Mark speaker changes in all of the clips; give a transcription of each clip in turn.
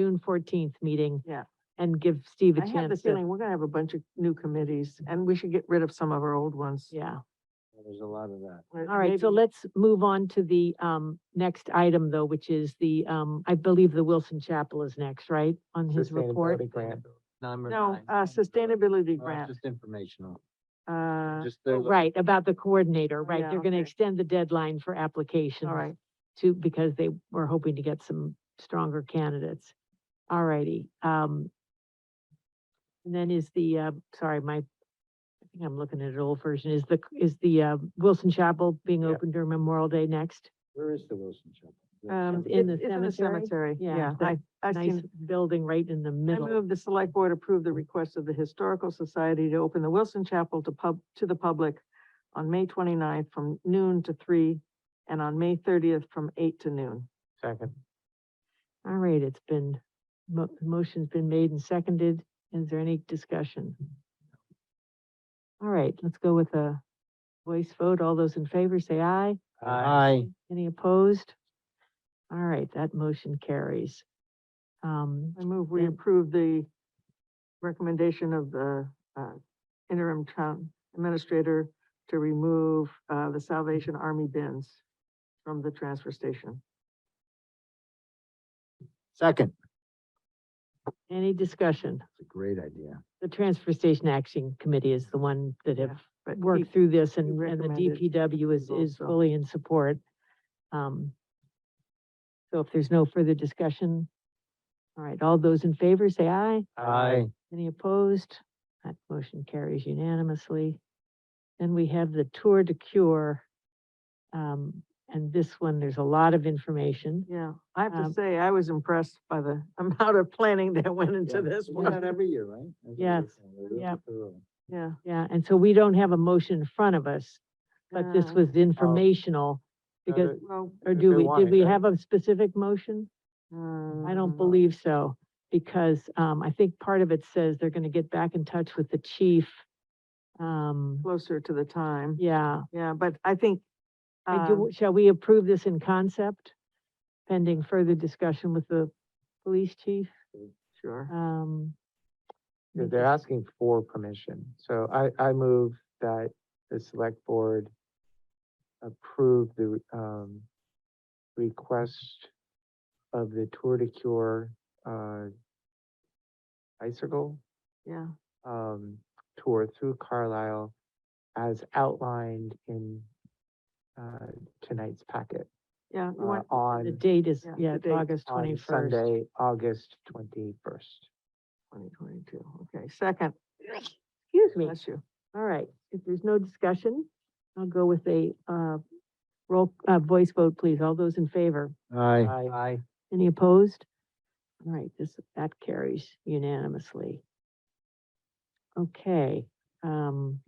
Speaker 1: June fourteenth meeting.
Speaker 2: Yeah.
Speaker 1: And give Steve a
Speaker 2: I have the
Speaker 1: chance to,
Speaker 2: feeling we're gonna have a bunch of new committees and we should get rid of some of our old ones.
Speaker 1: yeah.
Speaker 3: There's a lot of that.
Speaker 1: All right, so let's move on to the, um, next item though, which is the, um, I believe the Wilson Chapel is next, right? On his report.
Speaker 4: Sustainability grant.
Speaker 3: Number
Speaker 2: No,
Speaker 3: nine.
Speaker 2: uh, sustainability
Speaker 3: Uh,
Speaker 2: grant,
Speaker 3: Just informational.
Speaker 2: uh,
Speaker 3: Just
Speaker 1: Oh,
Speaker 3: the-
Speaker 1: Right, about the coordinator, right?
Speaker 2: yeah,
Speaker 1: They're gonna
Speaker 2: okay.
Speaker 1: extend the deadline for applications.
Speaker 2: all right.
Speaker 1: To, because they were hoping to get some stronger candidates. All righty, um. And then is the, uh, sorry, my, I think I'm looking at an old version, is the, is the, uh, Wilson Chapel being
Speaker 3: Yeah.
Speaker 1: open during Memorial Day next?
Speaker 3: Where is the Wilson Chapel? Is it
Speaker 2: Um,
Speaker 3: Chapel?
Speaker 1: in
Speaker 2: it-
Speaker 1: the
Speaker 2: it's
Speaker 1: cemetery? Yeah,
Speaker 2: Yeah,
Speaker 1: that
Speaker 2: I, I
Speaker 1: Nice
Speaker 2: seen,
Speaker 1: building right in the
Speaker 2: I
Speaker 1: middle.
Speaker 2: move the select board approve the request of the Historical Society to open the Wilson Chapel to pub, to the public on May 29th from noon to three and on May thirtieth from eight to noon.
Speaker 4: Second.
Speaker 1: All right, it's been, mo- motion's been made and seconded. Is there any discussion? All right, let's go with a voice vote. All those in favor, say aye.
Speaker 3: Aye.
Speaker 1: Any opposed? All right, that motion carries. Um,
Speaker 2: I move we
Speaker 1: Then-
Speaker 2: approve the recommendation of the uh, interim town administrator to remove uh, the Salvation Army bins from the transfer station.
Speaker 3: Second.
Speaker 1: any discussion?
Speaker 3: It's a great idea.
Speaker 1: The Transfer Station Action Committee is the one that
Speaker 2: Yeah,
Speaker 1: have
Speaker 2: But he-
Speaker 1: worked through this and, and the
Speaker 2: recommended
Speaker 1: DPW is,
Speaker 2: approval,
Speaker 1: is
Speaker 2: so-
Speaker 1: fully in support. Um, so if there's no further discussion, all right, all those in favor, say aye.
Speaker 3: Aye.
Speaker 1: Any opposed? That motion carries unanimously. Then we have the Tour de Cure. Um, and this one, there's a lot of information.
Speaker 2: Yeah, I have
Speaker 1: Um,
Speaker 2: to say, I was impressed by the amount of planning that went into this
Speaker 3: We do that
Speaker 2: one.
Speaker 3: every year, right? That's what we
Speaker 1: Yes.
Speaker 3: do. We're really
Speaker 1: Yeah.
Speaker 3: thorough.
Speaker 2: Yeah.
Speaker 1: Yeah, and so we don't have a motion in front of us, but this
Speaker 2: Uh,
Speaker 1: was informational. Because,
Speaker 2: Well,
Speaker 1: or
Speaker 4: if
Speaker 1: do
Speaker 4: they
Speaker 1: we,
Speaker 4: want
Speaker 1: did
Speaker 4: it,
Speaker 1: we
Speaker 4: right?
Speaker 1: have a specific motion? I
Speaker 2: um,
Speaker 1: don't believe so, because, um, I think part of it says they're gonna get back in touch with the chief. Um,
Speaker 2: Closer to the time,
Speaker 1: yeah,
Speaker 2: yeah, but I think.
Speaker 1: I do,
Speaker 2: um,
Speaker 1: shall we approve this in concept? Pending further discussion with the police chief,
Speaker 2: Sure.
Speaker 1: um.
Speaker 4: Yeah, They're asking for permission. So I, I move that the select board approve the, um, request of the Tour de Cure, uh, bicycle,
Speaker 2: Yeah,
Speaker 4: um, tour through Carlisle as outlined in, uh, tonight's packet,
Speaker 2: yeah. you
Speaker 4: uh,
Speaker 2: want-
Speaker 1: The
Speaker 4: on,
Speaker 1: date is,
Speaker 2: Yeah,
Speaker 1: yeah,
Speaker 2: the
Speaker 1: it's
Speaker 2: date
Speaker 1: August
Speaker 4: on
Speaker 1: twenty-first.
Speaker 4: Sunday, August twenty-first.
Speaker 2: Twenty twenty-two, okay, second.
Speaker 1: Excuse me,
Speaker 2: Bless you.
Speaker 1: all right, if there's no discussion, I'll go with a, uh, roll, uh, voice vote, please, all those in favor?
Speaker 3: Aye.
Speaker 4: Aye.
Speaker 1: Any opposed? All right, this, that carries unanimously. Okay, um,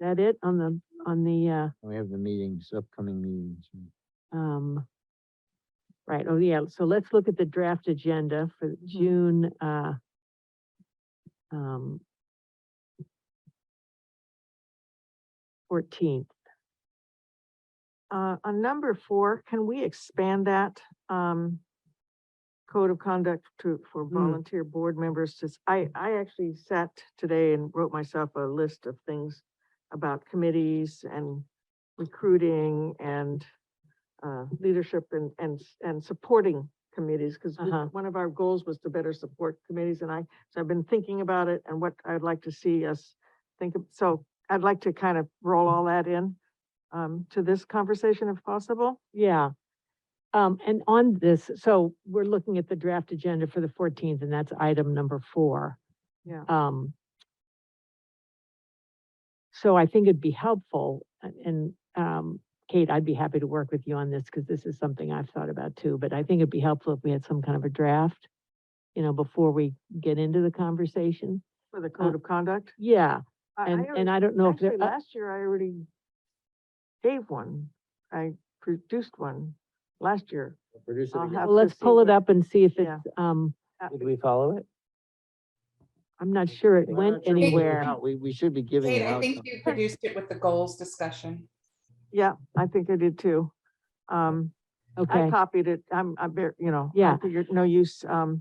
Speaker 1: that it on the, on the,
Speaker 3: We have the meetings, upcoming meetings.
Speaker 1: uh, um, right, oh yeah, so let's look at the draft agenda for June, uh, um, fourteenth.
Speaker 2: Uh, on number four, can we expand that, um, code of conduct to, for volunteer board members? Just, I, I actually sat today and wrote myself a list of things about committees and recruiting and, uh, leadership and, and, s- and supporting committees, because
Speaker 1: Uh-huh.
Speaker 2: one of our goals was to better support committees, and I, so I've been thinking about it and what I'd like to see us think, of. so I'd like to kind of roll all that in um, to this conversation if possible.
Speaker 1: Yeah. Um, and on this, so we're looking at the draft agenda for the fourteenth, and that's item number four.
Speaker 2: Yeah.
Speaker 1: Um. So I think it'd be helpful, a- and, um, Kate, I'd be happy to work with you on this, because this is something I've thought about too, but I think it'd be helpful if we had some kind of a draft, you know, before we get into the conversation.
Speaker 2: For the code of conduct.
Speaker 1: Yeah,
Speaker 2: I- I
Speaker 1: Uh, and, and
Speaker 2: already-
Speaker 1: I don't know if there,
Speaker 2: Actually,
Speaker 1: uh,
Speaker 2: last year I already gave one. I produced one last year.
Speaker 3: Produce it
Speaker 2: I'll
Speaker 3: again.
Speaker 2: have
Speaker 1: well, uh, let's
Speaker 2: to see
Speaker 1: pull it
Speaker 2: what-
Speaker 1: up and see if
Speaker 2: Yeah.
Speaker 1: it's, um,
Speaker 4: Did we follow it?
Speaker 1: I'm not sure it
Speaker 3: We're
Speaker 1: went
Speaker 3: not sure if it's
Speaker 1: anywhere.
Speaker 3: out. We, we should be giving it
Speaker 5: Kate, I
Speaker 3: out.
Speaker 5: think you produced it with the goals discussion.
Speaker 2: Yeah, I think I did too. Um, I
Speaker 1: Okay,
Speaker 2: copied it. I'm, I'm, ver- you know. I
Speaker 1: Yeah.
Speaker 2: figured no use, um,